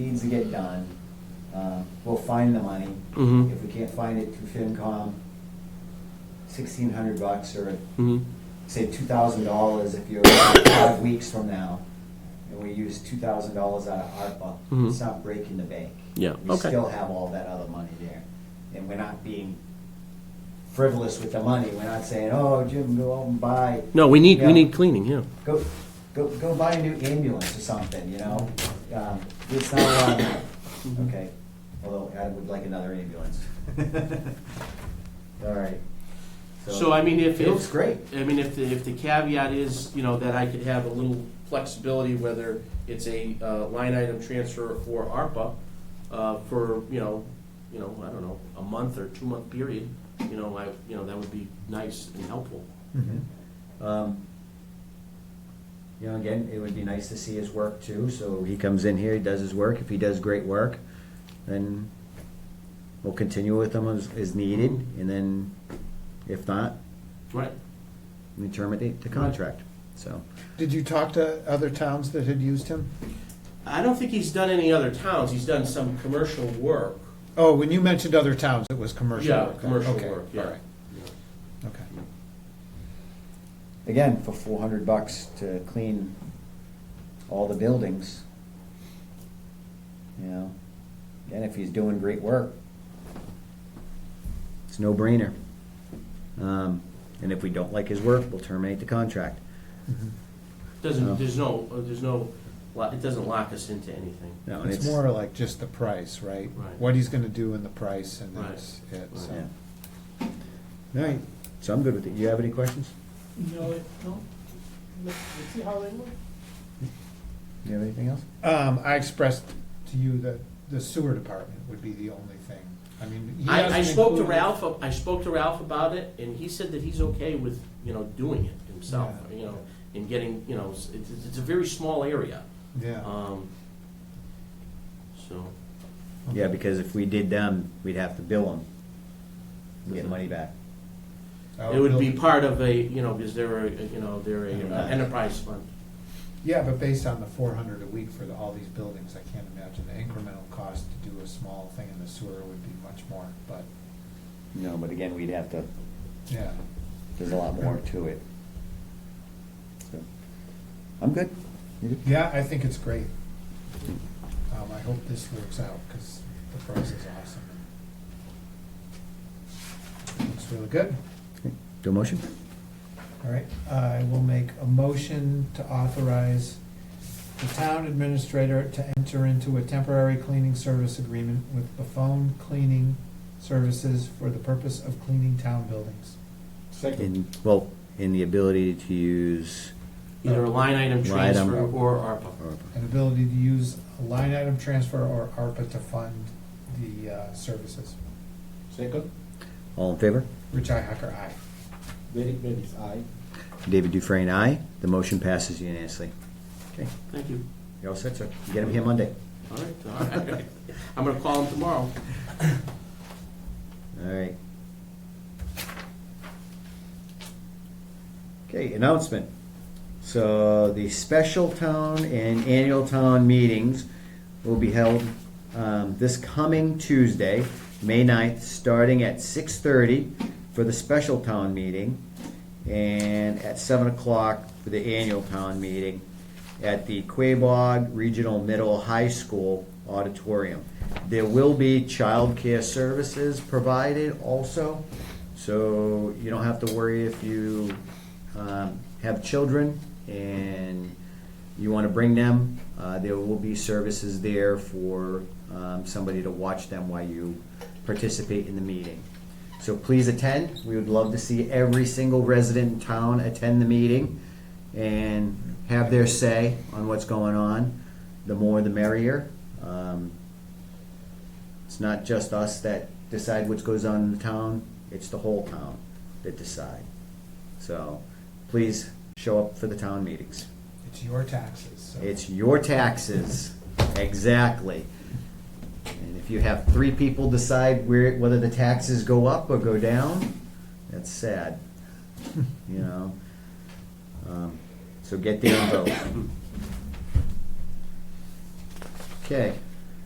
needs to get done. Uh, We'll find the money. Mhm. If we can't find it through FinCom, sixteen hundred bucks or Mhm. say two thousand dollars if you're five weeks from now, and we use two thousand dollars out of ARPA, Mhm. it's not breaking the bank. Yeah, We okay. still have all that other money there, and we're not being frivolous with the money, we're not saying, oh, Jim, go out and buy, No, we need, Yeah. we need cleaning, yeah. go, go, go buy a new ambulance or something, you know? Um, It's not a lot of money, okay? Although I would like another ambulance. All right. So I mean, if, It looks if, great. I mean, if the, if the caveat is, you know, that I could have a little flexibility, whether it's a uh, line item transfer or ARPA, uh, for, you know, you know, I don't know, a month or two-month period, you know, I, you know, that would be nice and helpful. Um, You know, again, it would be nice to see his work too, so he comes in here, he does his work, if he does great work, then we'll continue with him as, as needed, and then if not, Right. we terminate the contract, so. Did you talk to other towns that had used him? I don't think he's done any other towns, he's done some commercial work. Oh, when you mentioned other towns, it was commercial Yeah, work. commercial Okay, work, yeah. all right, Okay. Again, for four hundred bucks to clean all the buildings. You know, and if he's doing great work, it's no brainer. Um, and if we don't like his work, we'll terminate the contract. No. Doesn't, there's no, uh, there's no, lo- it doesn't lock us into anything. No, and It's more like just the price, right? Right. What he's gonna do and the price and um, Right. that's it, Right. so. Yeah. All right, so I'm good with it. Do you have any questions? No, it, no. Let's let's see how they work. Do you have anything else? Um, I expressed to you that the sewer department would be the only thing. I mean, he I, I hasn't spoke to included- Ralph, I spoke to Ralph about it, and he said that he's okay with, you know, doing it himself, Yeah. you know, and getting, you know, it's, it's it's a very small area. Yeah. Um, so, Yeah, because if we did them, we'd have to bill them. We get money back. Oh, it would be building- part of a, you know, because they're a, you know, they're a uh, enterprise fund. Yeah, but based on the four hundred a week for the- all these buildings, I can't imagine the incremental cost to do a small thing in the sewer would be much more, but, No, but again, we'd have to, yeah. there's a lot more to it. So, I'm good. You good? Yeah, I think it's great. Um, I hope this works out, because the price is awesome. Looks really good. Okay. Do a motion? All right, I will make a motion to authorize the town administrator to enter into a temporary cleaning service agreement with Buffon Cleaning Services for the purpose of cleaning town buildings. In, well, in the ability to use, uh, Either a line item Line item. transfer or ARPA. or- An ability to use a line item transfer or ARPA to fund the uh, services. all in favor? Richi Hacker, aye. David Dufresne, aye. The motion passes unanimously. Okay, Thank you. you're all set, sir. You Get him here Monday. All right, all right. I'm gonna call him tomorrow. All right. Okay, announcement. So the special town and annual town meetings will be held um, this coming Tuesday, May 9th, starting at six thirty for the special town meeting and at seven o'clock for the annual town meeting at the Quabog Regional Middle High School Auditorium. There will be childcare services provided also, so you don't have to worry if you um, have children and you want to bring them. Uh, There will be services there for um, somebody to watch them while you participate in the meeting. So please attend. We would love to see every single resident in town attend the meeting and have their say on what's going on. The more, the merrier. Um, It's not just us that decide what goes on in the town, it's the whole town that decide. So please show up for the town meetings. It's your taxes, so. It's your taxes, exactly. And if you have three people decide where, whether the taxes go up or go down, that's sad, you know? Um, So get there and vote. Okay.